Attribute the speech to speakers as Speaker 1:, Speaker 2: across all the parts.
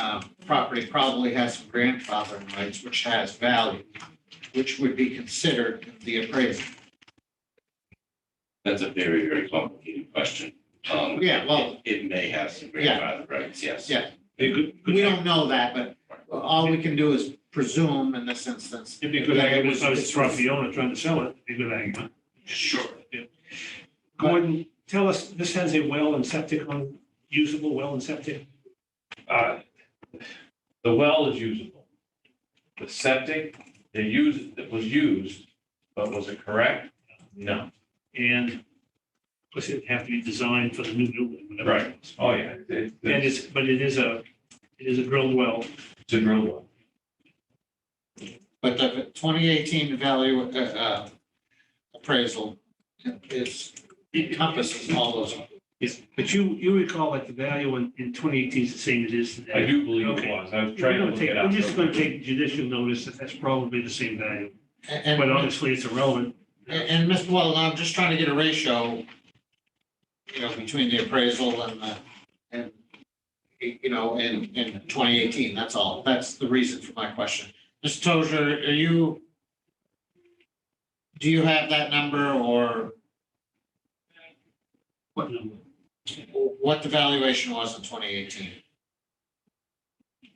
Speaker 1: uh, property probably has some grandfathering rights, which has value, which would be considered in the appraisal.
Speaker 2: That's a very, very complicated question. Um,
Speaker 1: Yeah, well,
Speaker 2: it- It may have some grandfather rights, yes.
Speaker 1: Yeah.
Speaker 3: It could,
Speaker 1: we don't know that, but all we can do is presume in this instance.
Speaker 3: it'd be a good argument, if I was property owner trying to sell it, it'd be a good argument.
Speaker 2: Sure.
Speaker 3: Gordon, tell us, this has a well and septic on, usable well and septic?
Speaker 4: Uh, The well is usable. The septic, they used, it was used, but was it correct? No.
Speaker 3: And of course, it'd have to be designed for the new building. whatever it is.
Speaker 4: Oh, yeah. it-
Speaker 3: And it's, but it is a, it is a drilled well.
Speaker 4: It's a drill well.
Speaker 1: But the twenty eighteen value, uh, uh, appraisal is encompasses all those.
Speaker 3: Yes, but you, you recall like the value in, in twenty eighteen is the same as it is today.
Speaker 4: I do believe it
Speaker 3: Okay.
Speaker 4: was. I was
Speaker 3: We're
Speaker 4: trying to
Speaker 3: gonna
Speaker 4: look
Speaker 3: take,
Speaker 4: it up.
Speaker 3: we're just gonna take judicial notice that that's probably the same value,
Speaker 1: And,
Speaker 3: but
Speaker 1: and,
Speaker 3: honestly, it's irrelevant.
Speaker 1: and Mr. Waddle, I'm just trying to get a ratio, you know, between the appraisal and the, and, you know, in, in twenty eighteen, that's all. That's the reason for my question. Mr. Tozer, are you, do you have that number or
Speaker 3: What number?
Speaker 1: what the valuation was in twenty eighteen?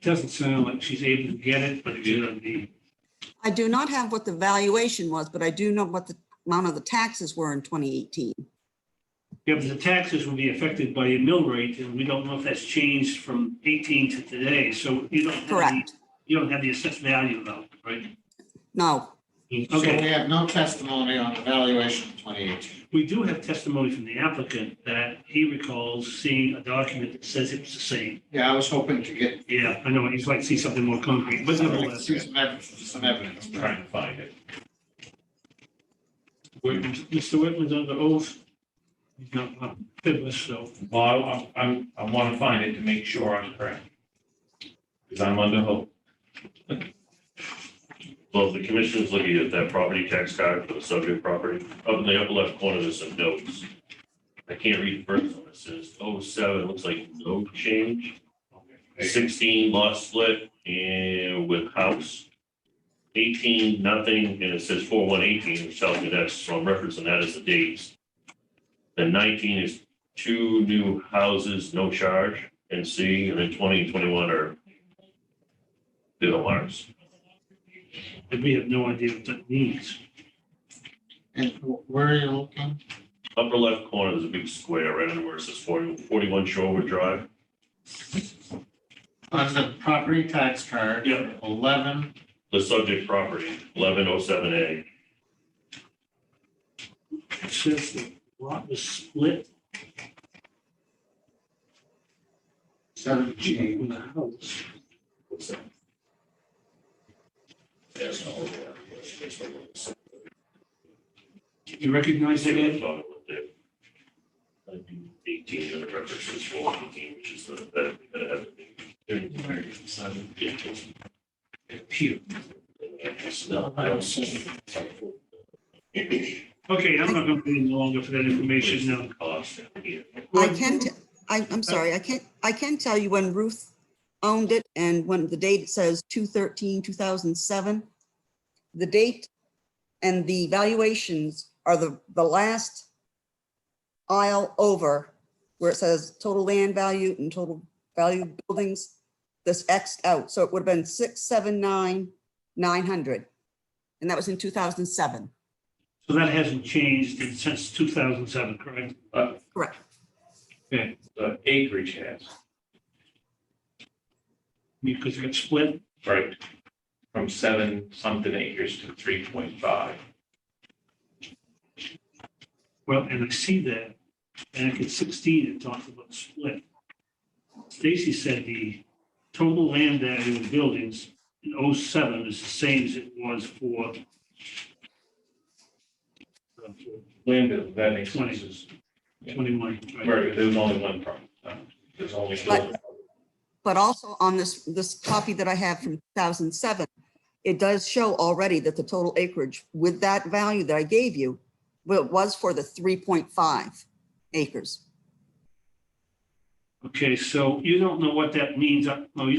Speaker 3: Doesn't sound like she's able to get it, but it's gonna be,
Speaker 5: I do not have what the valuation was, but I do know what the amount of the taxes were in 2018.
Speaker 3: yeah, but the taxes will be affected by a mill rate, and we don't know if that's changed from eighteen to today, so you don't. have the-
Speaker 5: Correct.
Speaker 3: You don't have the assessed value though, right?
Speaker 1: So
Speaker 5: No,
Speaker 1: we
Speaker 3: Okay,
Speaker 1: have no testimony on the valuation in twenty eighteen.
Speaker 3: we do have testimony from the applicant that he recalls seeing a document that says it was the same.
Speaker 1: Yeah, I was hoping to get
Speaker 3: Yeah, I know, he's like, see something more concrete, but
Speaker 1: some
Speaker 3: nevertheless.
Speaker 1: ev- some evidence.
Speaker 4: I'm Trying to find it.
Speaker 3: Whitman- Mr. Whitman's under oath. He's not not fitless, so
Speaker 4: Well, I- I'm, I want to find it to make sure I'm correct. Because I'm under hope.
Speaker 6: Well, the commission's looking at that property tax card for the subject property. Up in the upper left corner, there's some notes. I can't read the first one. It says oh seven, looks like no change. Sixteen lot split and with house. Eighteen, nothing, and it says four one eighteen, which tells me that's, so I'm referencing that as the dates. Then nineteen is two new houses, no charge, and C, and then twenty and twenty-one are the alarms.
Speaker 3: and we have no idea what that means.
Speaker 1: And wh- where are you looking?
Speaker 6: Upper left corner, there's a big square right under where it says 40 41 Shorewood Drive.
Speaker 1: On the property tax card.
Speaker 6: Yeah.
Speaker 1: Eleven,
Speaker 6: The subject property, eleven oh seven A.
Speaker 3: It says the lot was split
Speaker 1: seven G.
Speaker 3: from the house. You recognize that, Ed?
Speaker 6: Eighteen, and the reference is four eighteen, which is the, that, that has. No, I don't see.
Speaker 3: Okay, I'm not going to be any longer for that information now.
Speaker 6: Cost here.
Speaker 5: I can, t- I, I'm sorry, I can't, I can tell you when Ruth owned it and when the date it says 213, 2007. The date and the valuations are the, the last aisle over where it says total land value and total value of buildings, this Xed out. So it would have been 679, 900. And that was in 2007.
Speaker 3: So that hasn't changed since 2007, correct?
Speaker 5: Correct.
Speaker 4: The Uh, acreage has,
Speaker 3: Because it got split.
Speaker 4: right, from seven something acres to three point five.
Speaker 3: Well, and I see that back at 16, it talked about split. Stacy said the total land value of buildings in 07 is the same as it was for uh, for
Speaker 4: Land, is- that makes
Speaker 3: Twenty.
Speaker 4: sense.
Speaker 3: 21, right?
Speaker 4: Right, there was only one problem. uh, There's only.
Speaker 5: But- But also on this, this copy that I have from 2007, it does show already that the total acreage with that value that I gave you, well, it was for the 3.5 acres.
Speaker 3: Okay, so you don't know what that means. uh, No, you